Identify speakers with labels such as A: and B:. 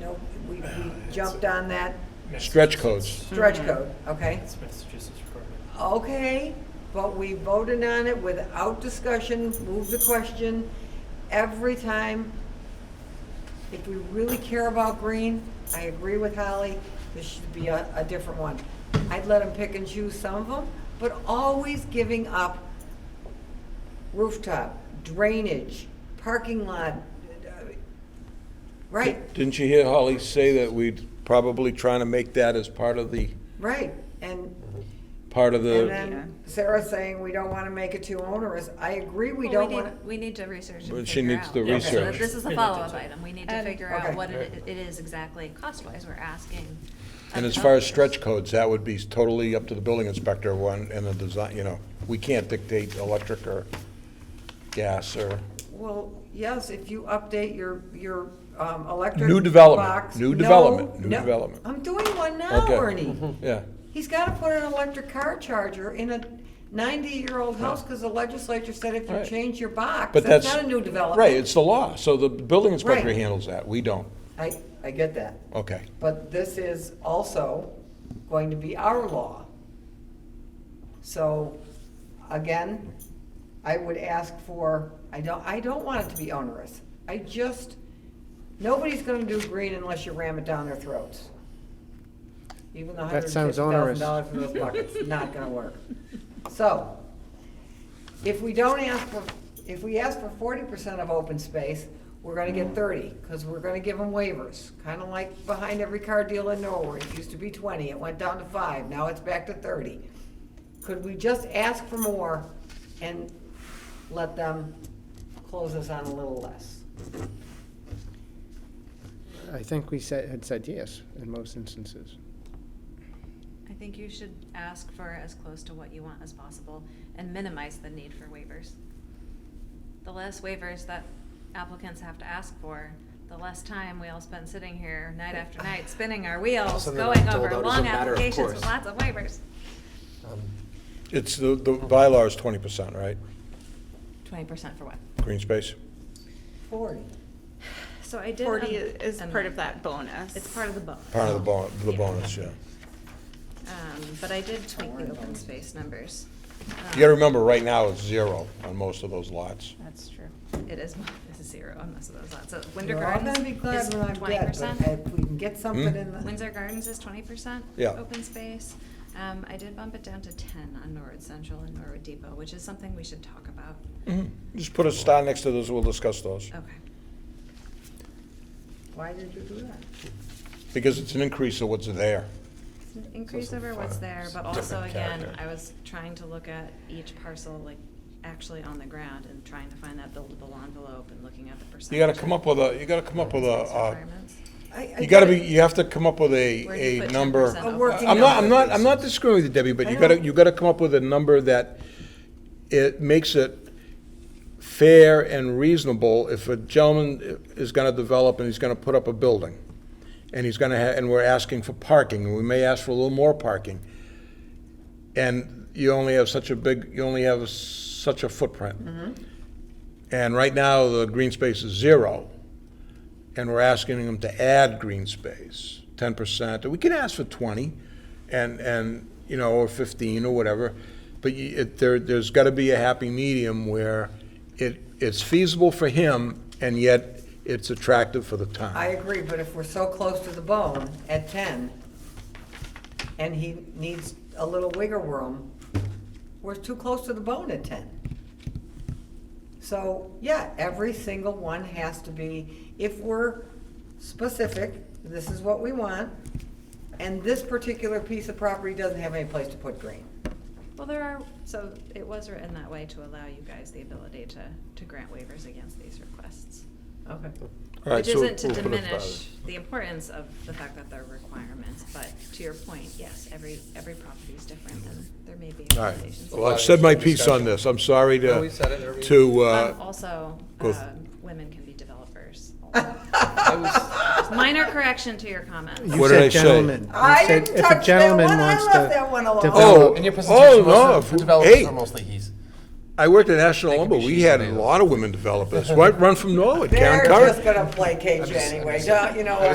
A: No, we we
B: It's-
A: jumped on that
C: Stretch codes.
A: stretch code, okay?
B: It's Massachusetts requirement.
A: Okay, but we voted on it without discussion, moved the question every time. If we really care about green, I agree with Holly, this should be a, a different one. I'd let them pick and choose some of them, but always giving up rooftop, drainage, parking lot, uh, right,
C: Didn't you hear Holly say that we'd probably trying to make that as part of the,
A: right, and
C: part of
A: And
C: the,
A: then Sarah's saying we don't want to make it too onerous. I agree, we
D: Well,
A: don't
D: need-
A: want to.
D: We need to research
C: But
D: and
C: she
D: figure
C: needs
D: out.
C: to
D: Okay, so
C: research.
D: This is
B: We
D: a
B: need to
D: follow-up
B: do-
D: item. We need to
E: And-
D: figure
A: Okay.
D: out what it it is exactly cost-wise we're asking. of
C: and as far as
D: developers.
C: stretch codes, that would be totally up to the building inspector one and the design, you know. We can't dictate electric or gas or
A: Well, yes, if you update your, your um, electric.
C: New development,
A: box-
C: new
A: No,
C: development, new
A: no.
C: development.
A: I'm doing one now,
C: Okay. Mm-hmm.
A: Ernie.
C: Yeah.
A: He's got to put an electric car charger in a ninety-year-old house because the legislature said if you
C: Right.
A: change your box,
C: But
A: that's
C: that's.
A: not a new development.
C: Right, it's the law. So the building inspector
A: Right.
C: handles that. We don't.
A: I, I get that,
C: Okay.
A: but this is also going to be our law. So, again, I would ask for, I don't, I don't want it to be onerous. I just, nobody's gonna do green unless you ram it down their throats. Even the hundred
F: That
A: and
F: sounds
A: fifty thousand
F: onerous.
A: dollars for those buckets, not gonna work. So, if we don't ask for, if we ask for forty percent of open space, we're gonna get thirty, because we're gonna give them waivers. Kinda like behind every car deal in Norway, it used to be twenty, it went down to five, now it's back to thirty. Could we just ask for more and let them close us on a little less?
F: I think we said, had said yes in most instances.
D: I think you should ask for as close to what you want as possible and minimize the need for waivers. The less waivers that applicants have to ask for, the less time we all spend sitting here night after night spinning our wheels,
G: Something I'm
D: going
G: told
D: over
G: out as a
D: long
G: matter of
D: applications with
G: course.
D: lots of waivers.
G: Um,
C: It's, the, the bylaw is twenty percent, right?
D: Twenty percent for what?
C: Green space?
A: Forty.
D: So I did.
E: Forty
D: um,
E: is
D: um,
E: part of that bonus.
D: It's part of the bonus.
C: Part of the
A: Oh.
C: bon, the bonus, yeah.
D: Um, but I did tweak the open space numbers.
C: You gotta remember, right now, it's zero on most of those lots.
E: That's true.
D: Um, It is, it's a zero on most of those lots. So Windsor
A: You're all
D: Gardens
A: gonna be
D: is
A: glad when I'm
D: twenty
A: dead,
D: percent.
A: but if we can get something
C: Hmm?
A: in the.
D: Windsor Gardens is twenty percent
C: Yeah.
D: open space. Um, I did bump it down to ten on Norwood Central and Norwood Depot, which is something we should talk about.
C: Mm-hmm. Just put a star next to those, we'll discuss those.
D: Okay.
A: Why did you do that?
C: Because it's an increase of what's there.
D: It's an Increase over what's there, but also again, I was trying to look at each parcel like actually on the ground and trying to find that buildable envelope and looking at the percentage.
C: You gotta come up with a, you gotta come up with a,
D: Space
C: uh,
D: requirements.
A: I- I
C: you gotta be,
A: get it.
C: you have to come up with
D: Where do you
C: a, a
D: put
C: number.
D: 10%
A: A
D: open?
A: working
C: I'm not, I'm not, I'm not disagreeing with you, Debbie, but
A: I
C: you
A: know.
C: gotta, you gotta come up with a number that it makes it fair and reasonable if a gentleman is gonna develop and he's gonna put up a building. And he's gonna ha, and we're asking for parking, and we may ask for a little more parking. And you only have such a big, you only have such a footprint. And right now, the green space is zero, and we're asking them to add green space, ten percent. We can ask for twenty, and, and, you know, or fifteen, or whatever. But you, it, there, there's gotta be a happy medium where it, it's feasible for him, and yet it's attractive for the town.
A: I agree, but if we're so close to the bone at ten, and he needs a little wiggle room, we're too close to the bone at ten. So, yeah, every single one has to be, if we're specific, this is what we want, and this particular piece of property doesn't have any place to put green.
D: Well, there are, so it was written that way to allow you guys the ability to, to grant waivers against these requests.
A: Okay.
C: All right,
D: Which
C: so
D: isn't to
C: we'll put it by
D: diminish
C: the-
D: the importance of the fact that they're requirements, but to your point, yes, every, every property is different and there may be
C: All right,
D: accommodations.
C: well, I've said my piece on this, I'm sorry
G: No, we said it,
C: to,
G: there we-
C: to,
D: Um,
C: uh,
D: Also,
C: go-
D: um, women can be developers.
G: I was-
D: Minor correction to your comments.
F: You
C: What did
F: said
C: I say?
F: gentlemen. You
A: I
F: said
A: didn't
F: if a
A: touch that
F: gentleman
A: one. I
F: wants
A: left
F: to
A: that one alone.
F: develop-
G: In your presentation,
C: no,
G: most
C: if-
G: of the developers
C: Oh, hey.
G: are mostly he's.
C: I worked at National
G: They can be
C: Lumber, we
G: she's
C: had a
G: tomatoes.
C: lot of women developers, right, run from Norwood, Karen
A: They're
C: Curran.
A: just gonna placate you anyway, don't, you know what?